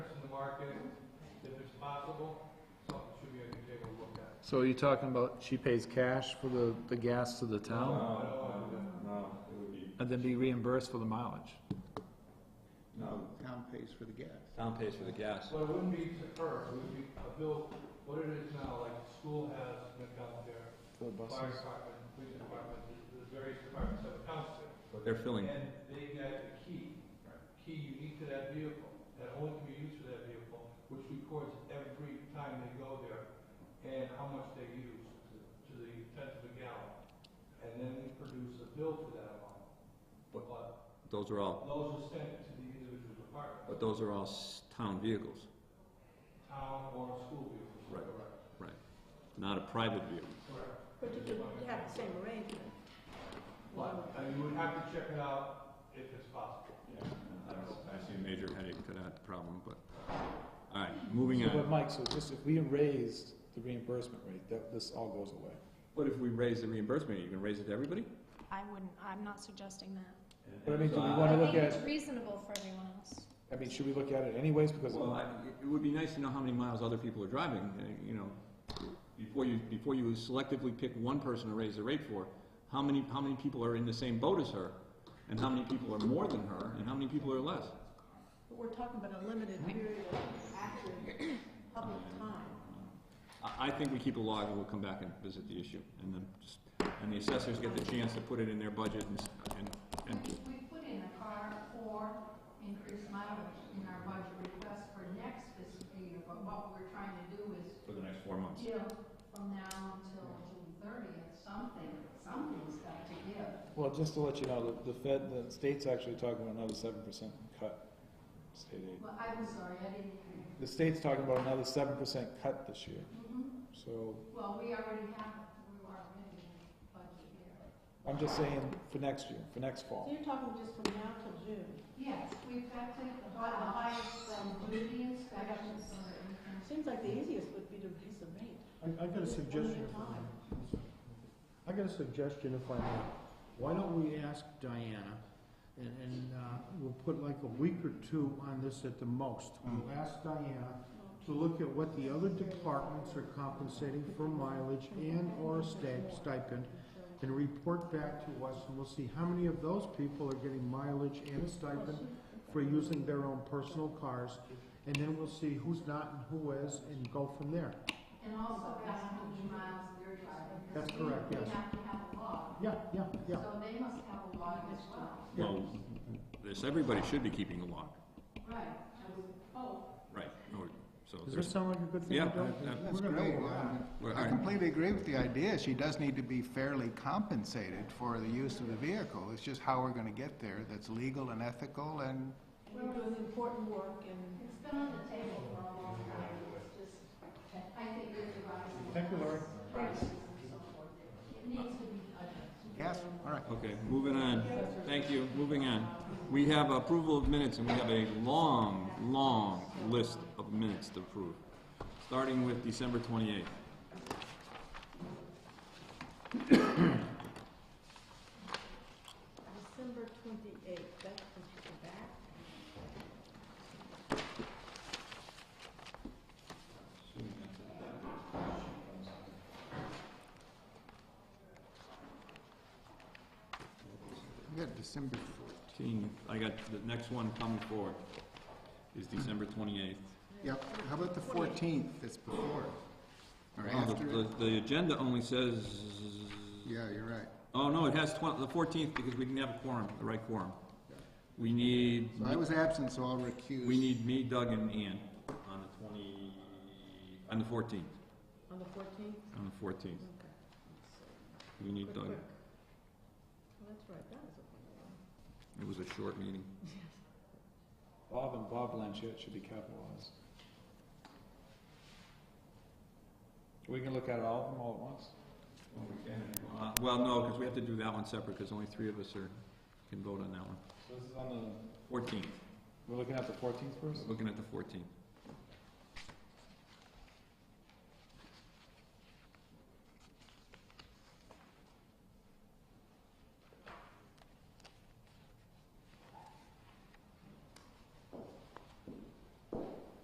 market if it's possible, something should be, I can take a look at. So are you talking about she pays cash for the, the gas to the town I don't wanna do that. No, it would be, and then be reimbursed for the mileage? no, Town pays for the gas. town pays for the gas. Well, it wouldn't be to her, it would be a bill, what it is now, like the school has an account there, fire department, police department, the- the various departments have accounts there. But They're filling, And they got the key, key unique to that vehicle, that only can be used for that vehicle, which records every time they go there and how much they use to the tenth of a gallon. And then we produce a bill for that amount. But- But those are all, those are sent to the individual department, but those are all s- town vehicles, town or school vehicles. Right. Correct. not a private vehicle. Correct. But you could have the same arrangement. But uh, you would have to check it out if it's possible. I don't know, I see a major headache to that problem, but, all right, moving So, but on. Mike, so just if we raised the reimbursement rate, that, this all goes away. But if we raise the reimbursement, are you gonna raise it to everybody? I wouldn't, I'm not suggesting that. But I mean, do we So, wanna I look think it's at, reasonable for everyone else. I mean, should we look at it anyways because Well, I, of it would be nice to know how many miles other people are driving, uh, you know, before you, before you selectively pick one person to raise the rate for, how many, how many people are in the same boat as her, and how many people are more than her, and how many people are less? But we're talking about a limited period of active public time. I, I think we keep a log and we'll come back and visit the issue, and then, just- and the assessors get the chance to put it in their budget and, s- and, and, We put in a car for increased mileage in our budget request for next fiscal year, but what we're trying to do is, for the next four months. you know, from now until June thirtieth, something, something's got to give. Well, just to let you know, the, the Fed, the state's actually talking about another seven percent cut, state aid. Well, I was sorry, I didn't hear you. The state's talking about another seven percent cut this year, Mhm. so Well, we already have, we were already in the budget year. I'm just saying for next year, for next So fall. you're talking just from now till June. Yes, we've got to, by the highest from duty inspections or anything. Seems like the easiest would be to raise the rate. I, I got a Just one at suggestion. a time. I got a suggestion if I may. Why don't we ask Diana, and, and, uh, we'll put like a week or two on this at the most. We'll ask Diana to look at what the other departments are compensating for mileage and/or sta- stipend, and report back to us, and we'll see how many of those people are getting mileage and stipend for using their own personal cars, and then we'll see who's not and who is, and go from there. And also ask how many miles they're driving. because That's correct, we- yes. We have to have a log, Yeah, yeah, yeah. so they must have a log as well. Well, this, everybody should be keeping a log, Right, I would hope. right, or- so Does there's, this sound like a good thing yeah, to do? I- I- We're That's gonna great. vote on it. Well, all I right. completely agree with the idea. She does need to be fairly compensated for the use of the vehicle. It's just how we're gonna get there that's legal and ethical and We're doing important work and It's been on the table for a long time, it's just, I think it's a rise. Thank you, Lori. Prices and so forth. It needs to be addressed. Yes, all right. okay, moving on, thank you, moving on. We have approval of minutes, and we have a long, long list of minutes to approve, starting with December twenty-eighth. December twenty-eighth, that's when she came back. We got December fourth. I got, the next one coming forward is December twenty-eighth. Yep, how about the fourteenth that's before? Or Oh, after? the, it? the- the agenda only says, Yeah, you're right. oh, no, it has twen- the fourteenth, because we didn't have a quorum, the right quorum. We need, So I was absent, so I'll recuse. we need me, Doug, and Ann on the twenty, on the fourteenth, On the fourteenth? on the fourteenth. Okay. Let's see. We need Quick, Doug. quick. Well, That's right, that was a one. It was a short meeting. Bob and Bob Blanchett should be capitalized. We can look at all of them all at once. Uh, Well, no, because we have to do that one separate, because only three of us are, can vote on that one. So this is on the, Fourteenth, we're looking at the fourteenth first? looking at the fourteenth.